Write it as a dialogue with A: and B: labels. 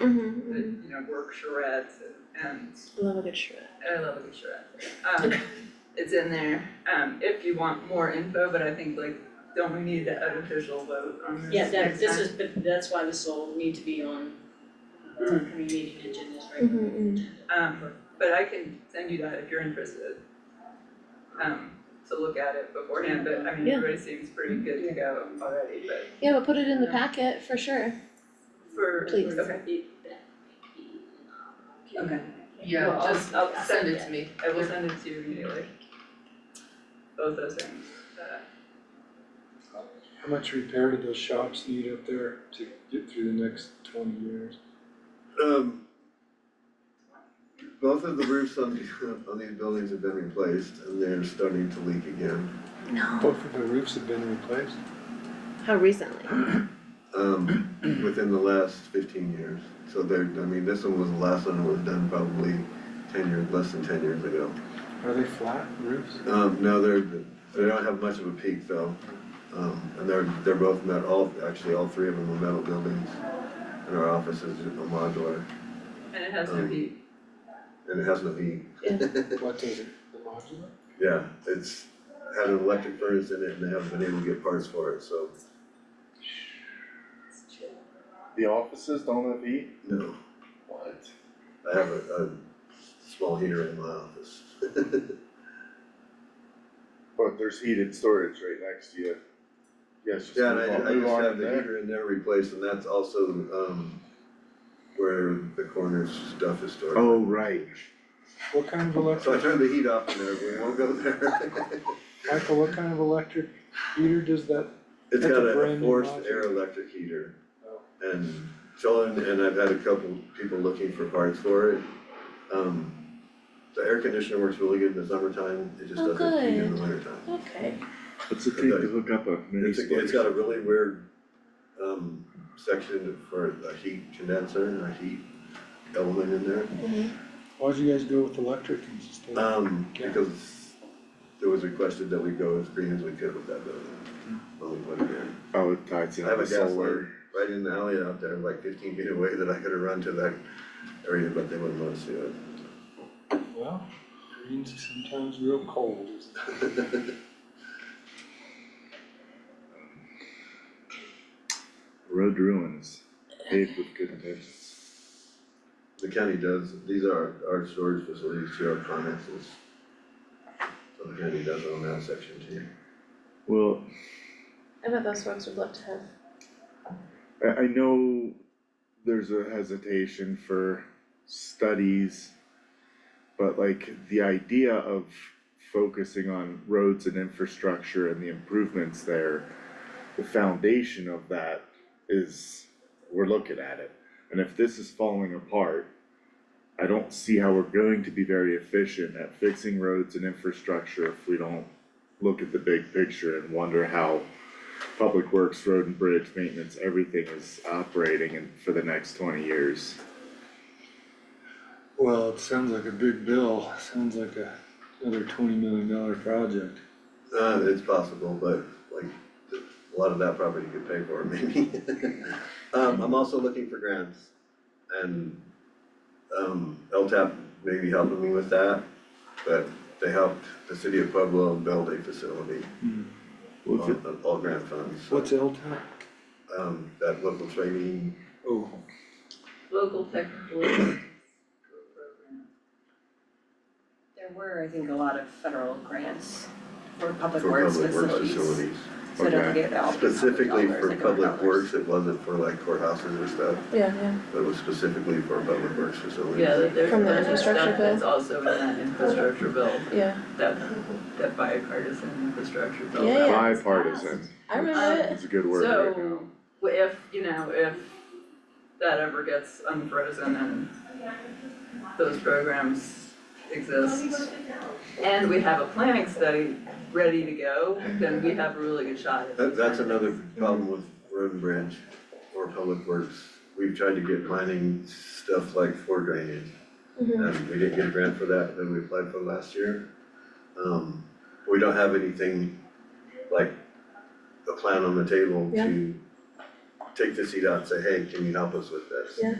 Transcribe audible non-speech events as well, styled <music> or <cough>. A: Mm-hmm,
B: that, you know, work charrettes and, and
A: Love a good shred.
B: I love the charrette. Um, it's in there, um, if you want more info, but I think like, don't we need an official vote on this
C: Yeah, that,
B: next
C: this
B: time?
C: is, but that's why this will need to be on uh,
B: Mm.
C: community meeting agendas, right?
A: Mm-hmm,
B: Um, but I can send you that if you're interested. Um, to look at it beforehand, but I mean,
A: Yeah.
B: everybody seems pretty good to go already, but
A: yeah, but put it in the
B: Yeah.
A: packet for sure.
B: for,
A: Please.
B: okay, okay,
D: Yeah,
B: Well, I'll-
D: just
B: I'll
D: send
B: send
D: it to me.
B: I will send it to you immediately. Both those things, uh,
E: How much repair do those shops need up there to get through the next twenty years?
F: Um, both of the roofs on, the- on these buildings have been replaced and they're starting to leak again.
A: No.
E: Both of the roofs have been replaced.
A: How recently?
F: Um, within the last fifteen years. So they're, I mean, this one was the last one that was done probably ten years, less than ten years ago.
E: Are they flat roofs?
F: Um, no, they're, they don't have much of a peak though. Um, and they're, they're both metal, all, actually all three of them are metal buildings. And our office is a modular
B: and it has to be,
A: Um.
F: and it has no heat.
E: What does it, the modular?
F: Yeah, it's had an electric furnace in it and they haven't been able to get parts for it, so
G: The offices don't have heat?
F: no.
G: What?
F: I have a, a small heater in my office.
G: But there's heated storage right next to you. Yes,
F: <laughs>
G: just
F: Yeah, and I,
G: move on,
F: I
G: move
F: just
G: on
F: have
G: in
F: the
G: there.
F: heater in there replaced and that's also, um, where the corner's stuff is stored.
G: Oh, right.
E: What kind of
F: So I
E: electric,
F: turned the heat off in there, we won't go there. <laughs>
E: Michael, what kind of electric heater does that,
F: It's
E: That's a
F: got a
E: brand new
F: forced
E: module.
F: air electric heater.
E: Oh.
F: And Sheldon and I've had a couple people looking for parts for it. Um, the air conditioner works really good in the summertime, it just
A: Oh,
F: doesn't heat in the wintertime.
A: Okay.
G: What's it
F: take to
G: hook up a
F: It's a, it's got a really weird, um, section for a heat condenser and a heat element in there.
E: why'd you guys go with electric instead of?
F: Um,
E: Yeah.
F: because it was requested that we go as green as we could with that building. Well, we put it in.
G: Oh, it ties in
F: I have a
G: with
F: gas
G: solar.
F: line right in the alley out there, like fifteen feet away that I could have run to that area, but they wouldn't let us do it.
E: Well, green's sometimes real cold, isn't it?
G: Road to ruin is paved with good intentions.
F: <laughs> The county does, these are our storage facilities to our finances. So the county does own that section too.
G: Well,
A: I bet those folks would love to have.
G: I, I know there's a hesitation for studies, but like the idea of focusing on roads and infrastructure and the improvements there, the foundation of that is, we're looking at it. And if this is falling apart, I don't see how we're going to be very efficient at fixing roads and infrastructure if we don't look at the big picture and wonder how public works, road and bridge maintenance, everything is operating and for the next twenty years.
E: Well, it sounds like a big bill, sounds like a, another twenty million dollar project.
F: Uh, it's possible, but like, a lot of that property could pay for <laughs> it maybe. Um, I'm also looking for grants and, um, LTAP may be helping me with that, but they helped the city of Pueblo build a facility
G: Well, if
F: on,
G: it-
F: on all grant funds. so,
E: What's LTAC?
F: Um, that local training,
E: Oh,
B: local technical <coughs> assistance program.
H: There were, I think, a lot of federal grants for public
F: for
H: works
F: public works
H: facilities.
F: facilities,
H: So don't
G: Okay.
H: get all the public
F: specifically
H: dollars,
F: for
H: like our
F: public
H: dollars.
F: works, it wasn't for like courthouses or stuff,
A: Yeah, yeah.
F: but it was specifically for public works facilities.
B: Yeah, that there's
A: From the
B: other
A: infrastructure
B: stuff
A: bill?
B: that's also in that infrastructure bill,
A: Yeah,
B: that, that bipartisan infrastructure bill.
A: Yeah,
B: that-
A: yeah.
G: Bipartisan
A: I remember it.
G: is a good word right now.
B: So, if, you know, if that ever gets unfrozen and those programs exist, and we have a planning study ready to go, then we have a really good shot at
F: That, that's another problem with road and bridge or public works. We've tried to get planning stuff like for drainage.
A: Mhm.
F: And we didn't get a grant for that, that we applied for last year. Um, we don't have anything like a plan on the table
A: Yeah.
F: to take the seat out and say, hey, can you help us with this?
A: Yeah.